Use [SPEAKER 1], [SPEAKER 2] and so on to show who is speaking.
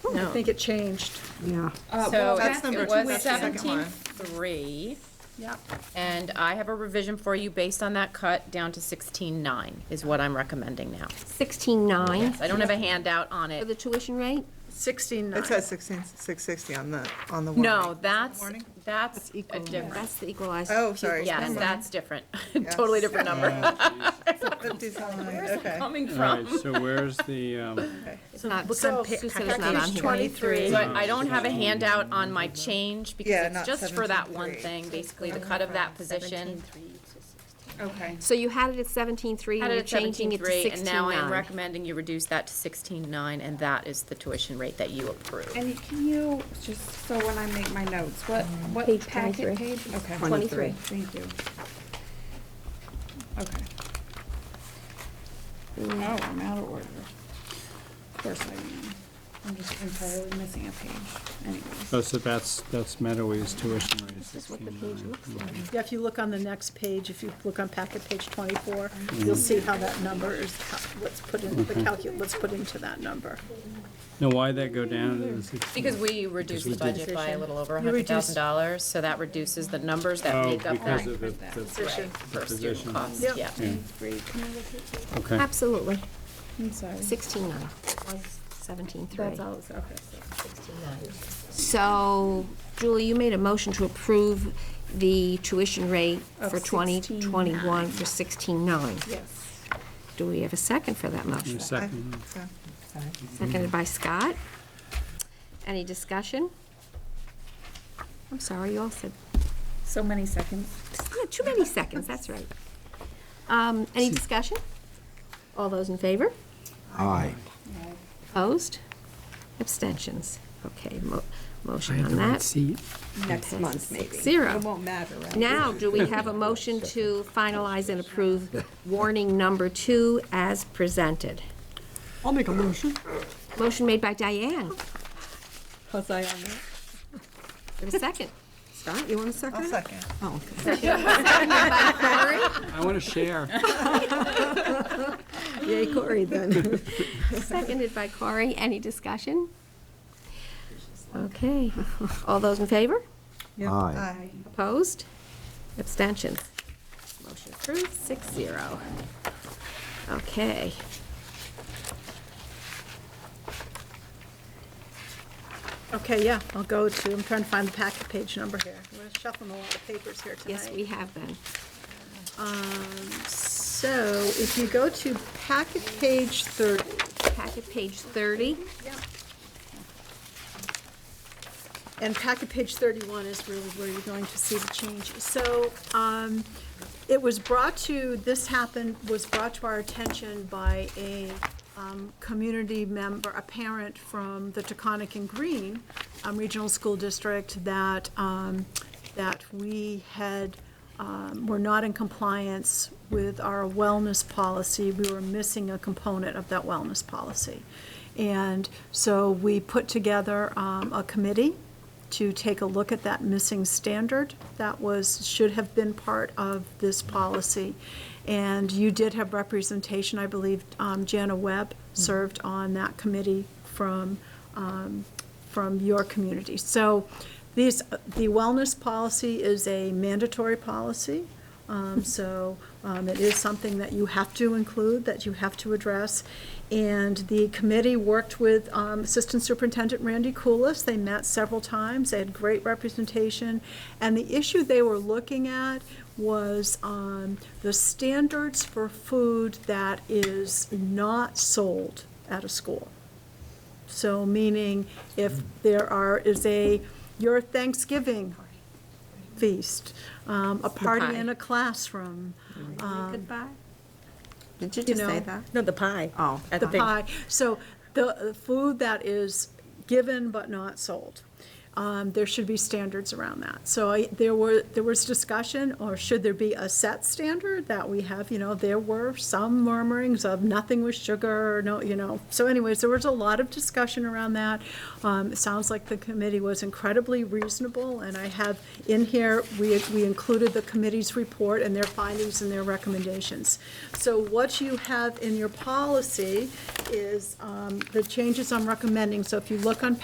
[SPEAKER 1] Oh, I
[SPEAKER 2] No.
[SPEAKER 1] think it changed.
[SPEAKER 3] Yeah.
[SPEAKER 2] Uh, well,
[SPEAKER 4] So
[SPEAKER 2] that's
[SPEAKER 4] it-
[SPEAKER 2] number
[SPEAKER 4] it
[SPEAKER 2] two,
[SPEAKER 4] was
[SPEAKER 2] that's the second
[SPEAKER 4] seventeen
[SPEAKER 2] one.
[SPEAKER 4] three,
[SPEAKER 1] Yep.
[SPEAKER 4] and I have a revision for you based on that cut down to sixteen nine is what I'm recommending now.
[SPEAKER 5] 16.9
[SPEAKER 4] I don't have a handout on
[SPEAKER 5] for the
[SPEAKER 4] it.
[SPEAKER 5] tuition rate?
[SPEAKER 1] Sixteen nine.
[SPEAKER 2] It says sixteen, six sixty on the, on the warning.
[SPEAKER 4] No, that's,
[SPEAKER 2] Warning?
[SPEAKER 4] that's a different,
[SPEAKER 5] That's the equalized.
[SPEAKER 2] Oh, sorry.
[SPEAKER 4] yes, that's different, totally different number.
[SPEAKER 2] Fifty-seven, okay.
[SPEAKER 4] Coming
[SPEAKER 6] All
[SPEAKER 4] from,
[SPEAKER 6] right, so where's the, um,
[SPEAKER 5] It's not,
[SPEAKER 1] Look on
[SPEAKER 5] Sue
[SPEAKER 1] pa-
[SPEAKER 5] said it's not Uh, on
[SPEAKER 1] page
[SPEAKER 5] here.
[SPEAKER 1] twenty-three.
[SPEAKER 4] but I don't have a handout on my change
[SPEAKER 2] Yeah,
[SPEAKER 4] because
[SPEAKER 2] not
[SPEAKER 4] it's just for that one
[SPEAKER 2] 17.3.
[SPEAKER 4] thing, basically the cut of that position.
[SPEAKER 2] Okay.
[SPEAKER 5] So you had it at 17.3
[SPEAKER 4] Had
[SPEAKER 5] and
[SPEAKER 4] it
[SPEAKER 5] you're
[SPEAKER 4] at
[SPEAKER 5] changing it to
[SPEAKER 4] 17.3, And now I'm
[SPEAKER 5] 16.9.
[SPEAKER 4] recommending you reduce that to sixteen nine, and that is the tuition rate that you approve.
[SPEAKER 7] And you- can you, just so when I make my notes, what, what
[SPEAKER 5] Page
[SPEAKER 7] packet
[SPEAKER 5] 23.
[SPEAKER 7] page? Okay.
[SPEAKER 5] 23.
[SPEAKER 7] Thank you. Okay. Oh, I'm out of order. Of course I am. I'm just entirely missing a page anyways.
[SPEAKER 6] oh, so that's, that's Meadowie's tuition rate. This
[SPEAKER 5] is what the page looks like.
[SPEAKER 1] Yeah, if you look on the next page, if you look on packet page twenty-four, you'll see how that number is, cal- what's put in, the calcu, what's put into that number.
[SPEAKER 6] Now, why'd that go down to the sixteen?
[SPEAKER 4] Because we reduced the budget by a little over
[SPEAKER 1] You
[SPEAKER 4] hundred
[SPEAKER 1] reduced-
[SPEAKER 4] thousand dollars, so that reduces the numbers that
[SPEAKER 6] Oh,
[SPEAKER 4] make up
[SPEAKER 6] because
[SPEAKER 4] that
[SPEAKER 6] of the, the-
[SPEAKER 4] per student
[SPEAKER 6] position.
[SPEAKER 4] cost,
[SPEAKER 1] Yep.
[SPEAKER 4] yeah.
[SPEAKER 6] okay.
[SPEAKER 5] Absolutely,
[SPEAKER 7] I'm sorry.
[SPEAKER 5] 16.9, was 17.3.
[SPEAKER 7] That's all, it's- okay. so-
[SPEAKER 5] So, Julie, you made a motion to approve the tuition rate for 2021 for 16.9.
[SPEAKER 7] Yes.
[SPEAKER 5] Do we have a second for that motion?
[SPEAKER 6] Your second.
[SPEAKER 2] So-
[SPEAKER 5] Seconded by Scott. Any discussion? I'm sorry, you all said,
[SPEAKER 7] So many seconds.
[SPEAKER 5] yeah, too many seconds, that's right. Um, Any discussion? All those in favor?
[SPEAKER 8] Aye.
[SPEAKER 5] Opposed? Abstentions? Okay, mo- motion on that.
[SPEAKER 6] seat.
[SPEAKER 5] Next month, maybe. Zero.
[SPEAKER 7] Won't matter, right?
[SPEAKER 5] Now, do we have a motion to finalize and approve warning number two as presented?
[SPEAKER 3] I'll make a motion.
[SPEAKER 5] Motion made by Diane.
[SPEAKER 3] Plus I
[SPEAKER 5] Give a second.
[SPEAKER 3] Scott, you want a
[SPEAKER 2] I'll
[SPEAKER 3] second?
[SPEAKER 2] second.
[SPEAKER 3] Oh, okay.
[SPEAKER 6] I want to share.
[SPEAKER 3] Yay, Corey, then.
[SPEAKER 5] Seconded by Corey. Any discussion? Okay. All those in favor?
[SPEAKER 8] Aye.
[SPEAKER 2] Aye.
[SPEAKER 5] Opposed? Abstentions? Motion approved, six zero. Okay.
[SPEAKER 1] Okay, yeah, I'll go to, I'm trying to find the packet page number here. I'm gonna shuffle a lot of papers here tonight. Um,
[SPEAKER 5] Yes, we have been.
[SPEAKER 1] So if you go to packet page thirty,
[SPEAKER 5] Packet page 30.
[SPEAKER 1] And packet page 31 is really where you're going to see the change. So um, it was brought to, this happened, was brought to our attention by a um, community member, a parent from the Taconic and Green um, Regional School District that, um, that we had, um, were not in compliance with our wellness policy. We were missing a component of that wellness policy. And so we put together um, a committee to take a look at that missing standard that was, should have been part of this policy. And you did have representation, I believe, um, Jana Webb served on that committee from, um, from your community. So these, the wellness policy is a mandatory policy. Um, So um, it is something that you have to include, that you have to address. And the committee worked with um, Assistant Superintendent Randy Coolis. They met several times. They had great representation. And the issue they were looking at was um, the standards for food that is not sold at a school. So meaning if there are, is a, your Thanksgiving feast, um, a party in a classroom, um,
[SPEAKER 3] Goodbye. Did you
[SPEAKER 1] you
[SPEAKER 3] just say
[SPEAKER 1] know,
[SPEAKER 3] that?
[SPEAKER 9] No, the pie.
[SPEAKER 3] Oh.
[SPEAKER 9] At
[SPEAKER 1] the
[SPEAKER 9] the big-
[SPEAKER 1] pie. So the the food that is given but not sold, um, there should be standards around that. So I, there were, there was discussion, or should there be a set standard that we have, you know, there were some murmurings of nothing with sugar, no, you know. So anyways, there was a lot of discussion around that. Um, it sounds like the committee was incredibly reasonable, and I have in here, we, we included the committee's report and their findings and their recommendations. So what you have in your policy is um, the changes I'm recommending. So if you look on